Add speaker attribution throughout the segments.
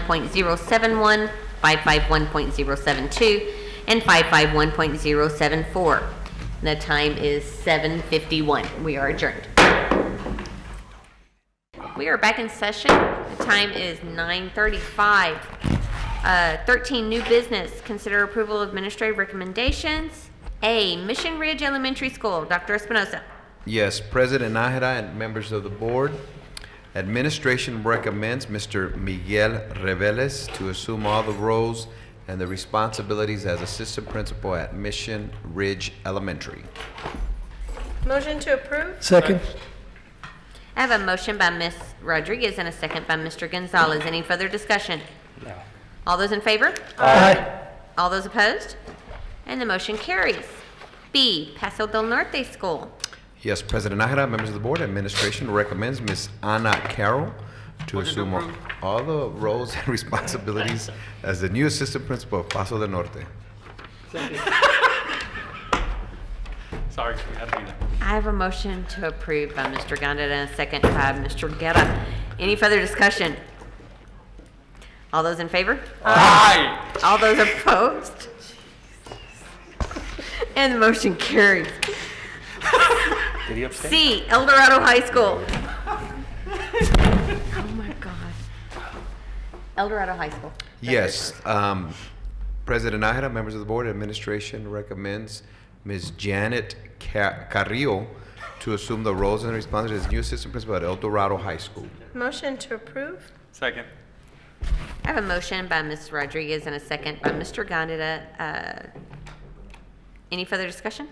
Speaker 1: 551.071, 551.072, and 551.074. And The time is 7:51. We are adjourned. We are back in session. The time is 9:35. Uh, 13, new business. Consider approval of administrative recommendations. A, Mission Ridge Elementary School. Dr. Espinoza.
Speaker 2: Yes, President Nájera and members of the board, administration recommends Mr. Miguel Reveles to assume all the roles and the responsibilities as assistant principal at Mission Ridge Elementary.
Speaker 3: Motion to approve?
Speaker 4: Second.
Speaker 1: I have a motion by Ms. Rodriguez and a second by Mr. Gonzalez. Any further discussion? All those in favor?
Speaker 4: Aye.
Speaker 1: All those opposed? And the motion carries. B, Paso del Norte School.
Speaker 2: Yes, President Nájera, members of the board, administration recommends Ms. Anna Carroll to assume all- all the roles and responsibilities as the new assistant principal of Paso del Norte.
Speaker 5: Sorry, we had to do that.
Speaker 1: I have a motion to approve by Mr. Gondit and a second by Mr. Guerra. Any further discussion? All those in favor?
Speaker 5: Aye.
Speaker 1: All those opposed? And the motion carries.
Speaker 5: Did he abstain?
Speaker 1: C, El Dorado High School. Oh my God. El Dorado High School.
Speaker 2: Yes, um, President Nájera, members of the board, administration recommends Ms. Janet Ca- Carrillo to assume the roles and responsibilities as new assistant principal at El Dorado High School.
Speaker 3: Motion to approve?
Speaker 5: Second.
Speaker 1: I have a motion by Ms. Rodriguez and a second by Mr. Gondeta. Uh, Any further discussion?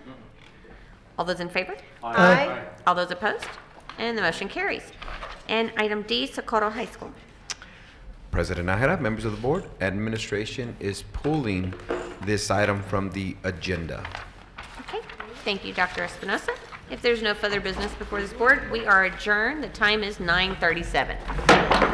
Speaker 1: All those in favor?
Speaker 3: Aye.
Speaker 1: All those opposed? And the motion carries. And item D, Socorro High School.
Speaker 2: President Nájera, members of the board, administration is pulling this item from the agenda.
Speaker 1: Okay, thank you, Dr. Espinosa. If there's no further business before this board, we are adjourned. The time is 9:37.